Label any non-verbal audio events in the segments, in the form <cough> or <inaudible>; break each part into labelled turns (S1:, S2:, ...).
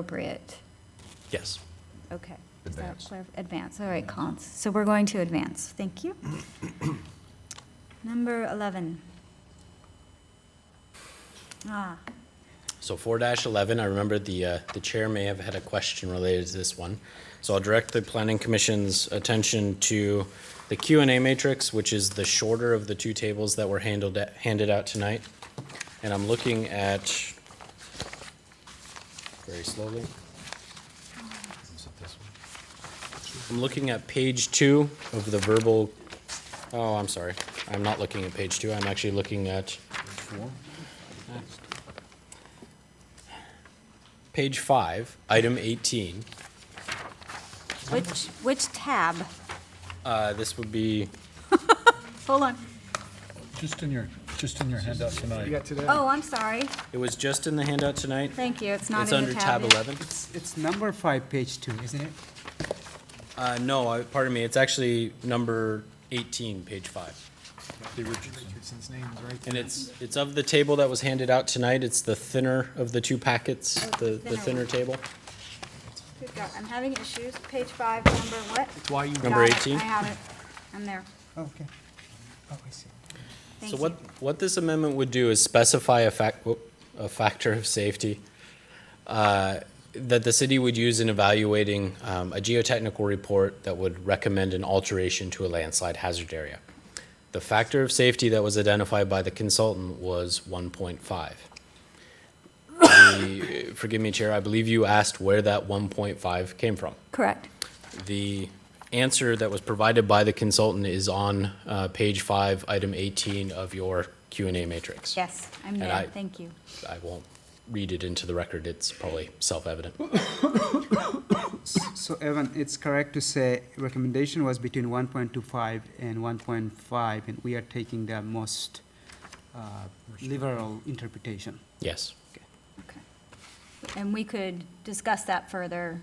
S1: appropriate?
S2: Yes.
S1: Okay. Is that
S3: Advance.
S1: clar- Advance, all right, Collins. So we're going to advance, thank
S2: <coughs>
S1: you. Number 11. Ah,
S2: So four eleven, I remember the, uh, the chair may have had a question related to this one. So I'll direct the planning commission's attention to the Q and A matrix, which is the shorter of the two tables that were handled, handed out tonight. And I'm looking at, very slowly,
S3: Is it this one?
S2: I'm looking at page two of the verbal, oh, I'm sorry. I'm not looking at page two, I'm actually looking at page five, item eighteen.
S1: which, which tab?
S2: Uh, this would be
S1: Hold on.
S4: Just in your, just in your handout tonight.
S5: You got today?
S1: Oh, I'm sorry.
S2: It was just in the handout tonight.
S1: Thank you, it's not
S2: It's
S1: in the
S2: under
S1: tab.
S2: tab
S1: yet.
S2: 11.
S6: It's- It's number five, page two, isn't it?
S2: Uh, no, I- pardon me, it's actually number 18, page 5.
S4: The original.
S5: Richardson's name is right there.
S2: And it's, it's of the table that was handed out tonight. It's the thinner of the two packets, the the
S1: Oh, Thinner
S2: thinner
S1: one.
S2: table.
S1: Good God, I'm having issues. Page five, number what?
S5: Why you
S2: Number
S1: Got it,
S2: 18?
S1: I have it. I'm there.
S6: Okay. Oh, I see.
S1: Thank
S2: So
S1: you.
S2: what, what this amendment would do is specify a fac, whoop, a factor of safety uh, that the city would use in evaluating um, a geotechnical report that would recommend an alteration to a landslide hazard area. The factor of safety that was identified by the consultant was 1.5. The- Forgive me, Chair, I believe you asked where that 1.5 came from.
S1: Correct.
S2: The answer that was provided by the consultant is on uh, page five, item 18 of your Q and A matrix.
S1: Yes, I'm
S2: And
S1: there,
S2: I-
S1: thank you.
S2: I won't read it into the record, it's probably self-evident.
S6: So Evan, it's correct to say recommendation was between one point two five and one point five, and we are taking the most uh, liberal interpretation.
S2: Yes.
S1: Okay. And we could discuss that further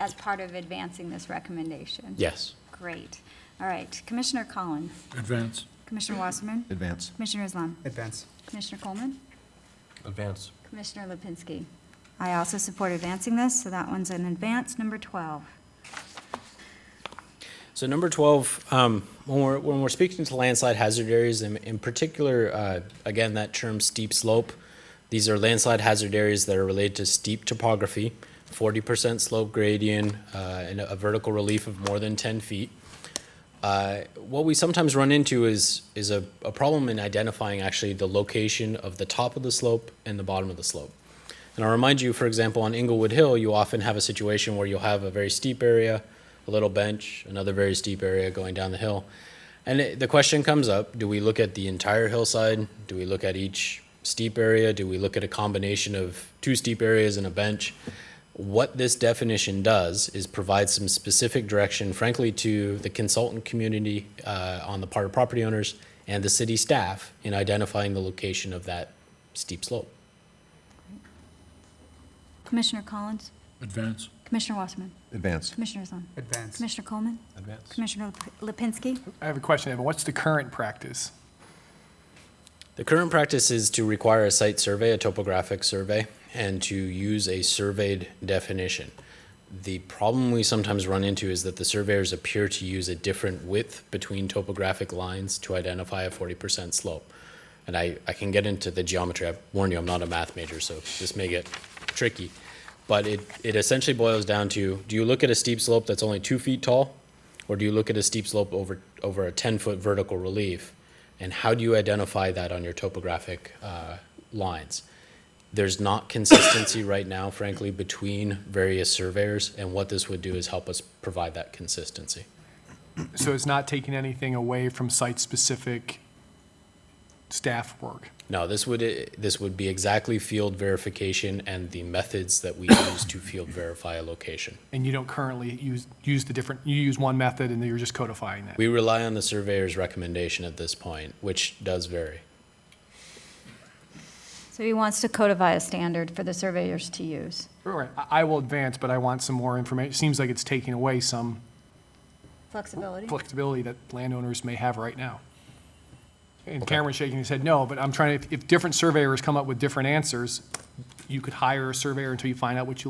S1: as part of advancing this recommendation?
S2: Yes.
S1: Great. All right, Commissioner Collins,
S4: Advance.
S1: Commissioner Wasserman,
S3: Advance.
S1: Commissioner Islam,
S6: Advance.
S1: Commissioner Coleman,
S3: Advance.
S1: Commissioner Lipinski. I also support advancing this, so that one's an advance. Number 12.
S2: So number 12, um, when we're, when we're speaking to landslide hazard areas, in, in particular, uh, again, that term steep slope, these are landslide hazard areas that are related to steep topography, 40% slope gradient, uh, and a vertical relief of more than 10 feet. Uh, what we sometimes run into is, is a, a problem in identifying actually the location of the top of the slope and the bottom of the slope. And I'll remind you, for example, on Inglewood Hill, you often have a situation where you'll have a very steep area, a little bench, another very steep area going down the hill. And it, the question comes up do we look at the entire hillside? Do we look at each steep area? Do we look at a combination of two steep areas and a bench? What this definition does is provide some specific direction, frankly, to the consultant community uh, on the part of property owners and the city staff in identifying the location of that steep slope.
S1: Commissioner Collins,
S4: Advance.
S1: Commissioner Wasserman,
S3: Advance.
S1: Commissioner Islam,
S6: Advance.
S1: Commissioner Coleman,
S3: Advance.
S1: Commissioner Lip- Lipinski.
S5: I have a question, Evan. What's the current practice?
S2: The current practice is to require a site survey, a topographic survey, and to use a surveyed definition. The problem we sometimes run into is that the surveyors appear to use a different width between topographic lines to identify a 40% slope. And I, I can get into the geometry. I warn you, I'm not a math major, so this may get tricky. But it, it essentially boils down to do you look at a steep slope that's only two feet tall, or do you look at a steep slope over, over a 10 foot vertical relief? And how do you identify that on your topographic uh, lines? There's not consistency <coughs> right now, frankly, between various surveyors, and what this would do is help us provide that consistency.
S5: So it's not taking anything away from site-specific staff work?
S2: No, this would, this would be exactly field verification and the methods that we <coughs> use to field verify a location.
S5: And you don't currently use, use the different, you use one method and then you're just codifying that?
S2: We rely on the surveyor's recommendation at this point, which does vary.
S1: So he wants to codify a standard for the surveyors to use.
S5: All right, I I will advance, but I want some more information. Seems like it's taking away some
S1: Flexibility?
S5: flexibility that landowners may have right now. And Cameron's shaking his head no, but I'm trying to, if different surveyors come up with different answers, you could hire a surveyor until you find out what you